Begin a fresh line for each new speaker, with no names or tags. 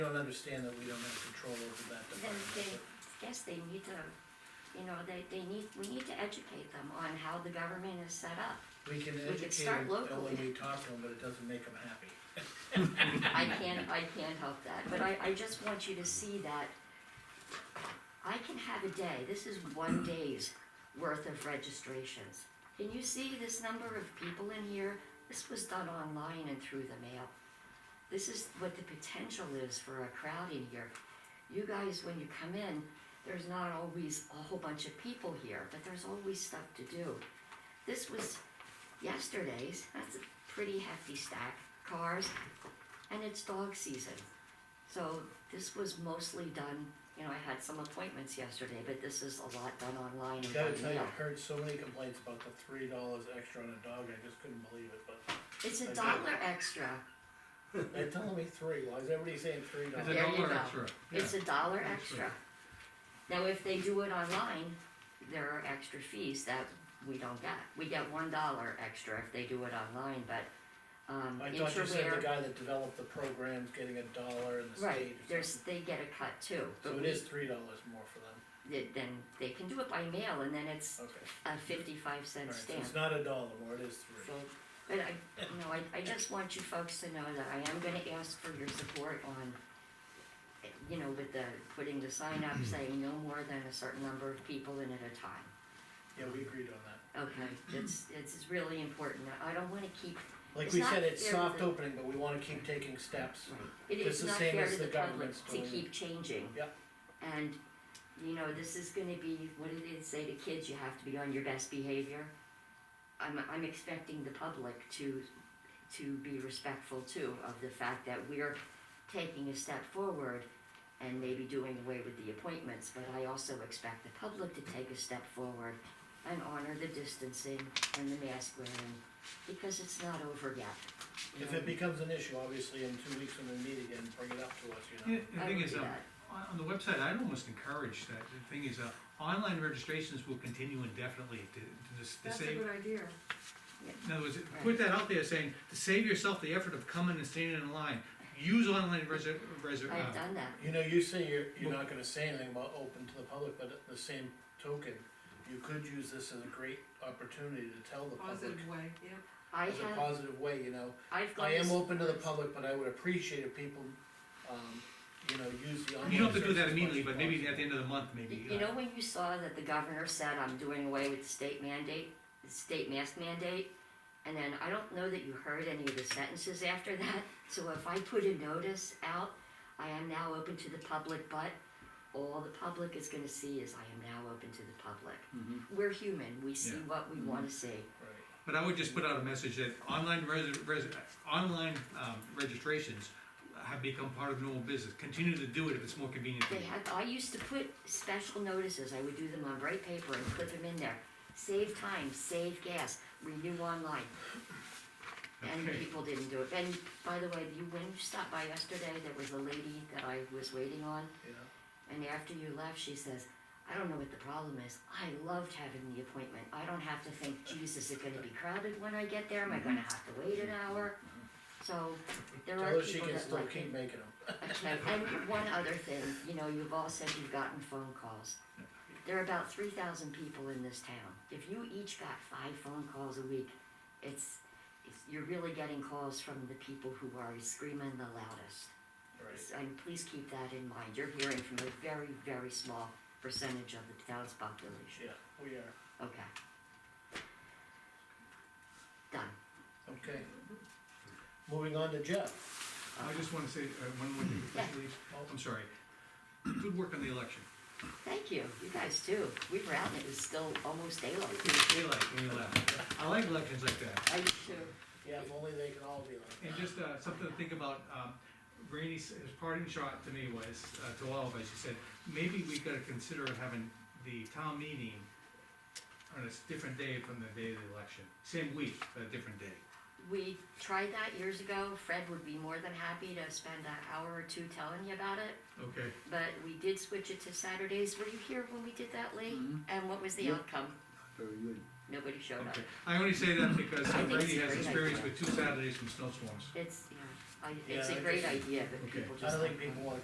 don't understand that we don't have control over that
Then they,
department.
yes, they need to, you know, they, they need, we need to educate them on how the government is set up.
We can
could
educate
start
them when
locally.
we talk to them, but it doesn't make them happy.
I can't, I can't help that, but I, I just want you to see that I can have a day, this is one day's worth of registrations. Can you see this number of people in here? This was done online and through the mail. This is what the potential is for a crowd in here. You guys, when you come in, there's not always a whole bunch of people here, but there's always stuff to do. This was yesterday's, that's a pretty hefty stack, cars, and it's dog season. So this was mostly done, you know, I had some appointments yesterday, but this is a lot done online and
Gotta
by
tell you,
mail.
I've heard so many complaints about the three dollars extra on a dog, I just couldn't believe it, but
It's a
I
dollar extra,
they're telling me three, why is everybody saying three
It's
dollars?
a
There you go.
dollar extra.
it's a dollar
That's
extra.
right.
Now, if they do it online, there are extra fees that we don't get. We get one dollar extra if they do it online, but, um,
I thought you said the
interware,
guy that developed the program's getting a dollar in the state or
right, there's,
something.
they get a cut too.
So
but
it
we-
is three dollars more for them,
th- Then they can do it by mail and then it's
okay.
a fifty-five cent
Alright, so
stamp.
it's not a dollar more, it is
So,
three.
but I, no, I, I just want you folks to know that I am gonna ask for your support on, eh, you know, with the, putting the sign up saying no more than a certain number of people in at a time.
Yeah, we agreed on that.
Okay, it's, it's really important. I don't wanna keep,
Like
It's
we
not
said, it's
fair
soft
to-
opening, but we wanna keep taking steps.
it
Just
is
the
not
same
fair
as
to the
the
public
government's
to
doing.
keep changing.
Yeah.
And, you know, this is gonna be, what did it say to kids? You have to be on your best behavior. I'm, I'm expecting the public to, to be respectful too of the fact that we're taking a step forward and maybe doing away with the appointments, but I also expect the public to take a step forward and honor the distancing and the mask wearing, because it's not over yet. you
If
know?
it becomes an issue, obviously, in two weeks when we meet again, bring it up to us, you
Yeah,
know?
The
I
thing
would
is,
do
um,
that.
on, on the website, I'd almost encourage that, the thing is, uh, online registrations will continue indefinitely to, to dis- to
That's a
save.
good idea.
In other words, put that out there saying, to save yourself the effort of coming and standing in line, use online reser- reser-
I've
uh,
done that.
You know, you say you're, you're not gonna say anything about open to the public, but at the same token, you could use this as a great opportunity to tell the public.
Positive way, yeah.
I
As a
have,
positive way, you know,
I've gone.
I am
to-
open to the public, but I would appreciate if people, um, you know, use the online.
You don't have to do
service
that
as
immediately,
much
but
as
maybe at
possible.
the end of the month, maybe.
You
uh,
know when you saw that the governor said, I'm doing away with the state mandate, the state mask mandate? And then I don't know that you heard any of the sentences after that, so if I put a notice out, I am now open to the public, but all the public is gonna see is I am now open to the public.
Mm-hmm.
We're human, we see
Yeah.
what we wanna see.
Right.
But I would just put out a message that online res- res- online, um, registrations have become part of normal business, continue to do it if it's more convenient for
They
you.
have, I used to put special notices, I would do them on bright paper and put them in there. Save time, save gas, renew online. And
Okay.
people didn't do it. And by the way, you, when you stopped by yesterday, there was a lady that I was waiting on,
You know,
and after you left, she says, I don't know what the problem is. I loved having the appointment. I don't have to think, geez, is it gonna be crowded when I get there? Am I gonna have to wait an hour? So there
tell
are
her she
people
can
that
still
like it.
keep making them.
Okay, and one other thing, you know, you've all said you've gotten phone calls. There are about three thousand people in this town. If you each got five phone calls a week, it's, it's, you're really getting calls from the people who are screaming the loudest.
Right.
And please keep that in mind, you're hearing from a very, very small percentage of the town's population,
Yeah, we are.
okay? Done.
Okay. Moving on to Jeff.
I just wanna say, uh, one more thing, before you leave.
Oh,
I'm sorry, good work on the election,
Thank you, you guys too. We were out and it was still almost
It
daylight.
was daylight when you left, I like elections like that.
I too.
Yeah, if only they can all be like
And just uh, something to think about, um, Randy's, his parting shot to me was, uh, to all of us, he said, maybe we gotta consider having the town meeting on a s- different day from the day of the election, same week, but a different day.
We tried that years ago. Fred would be more than happy to spend an hour or two telling you about it,
Okay.
but we did switch it to Saturdays. Were you here when we did that, Lee?
Mhm.
And what was the
Yep.
outcome?
Very good.
Nobody showed up.
Okay, I only say that because
I think it's
Randy
a
has
great
experience
idea.
with two Saturdays from snowstorms.
It's, you know, I, it's
Yeah,
a
I
great
just-
idea, but
Okay.
people just.
I don't think
don't
people wanna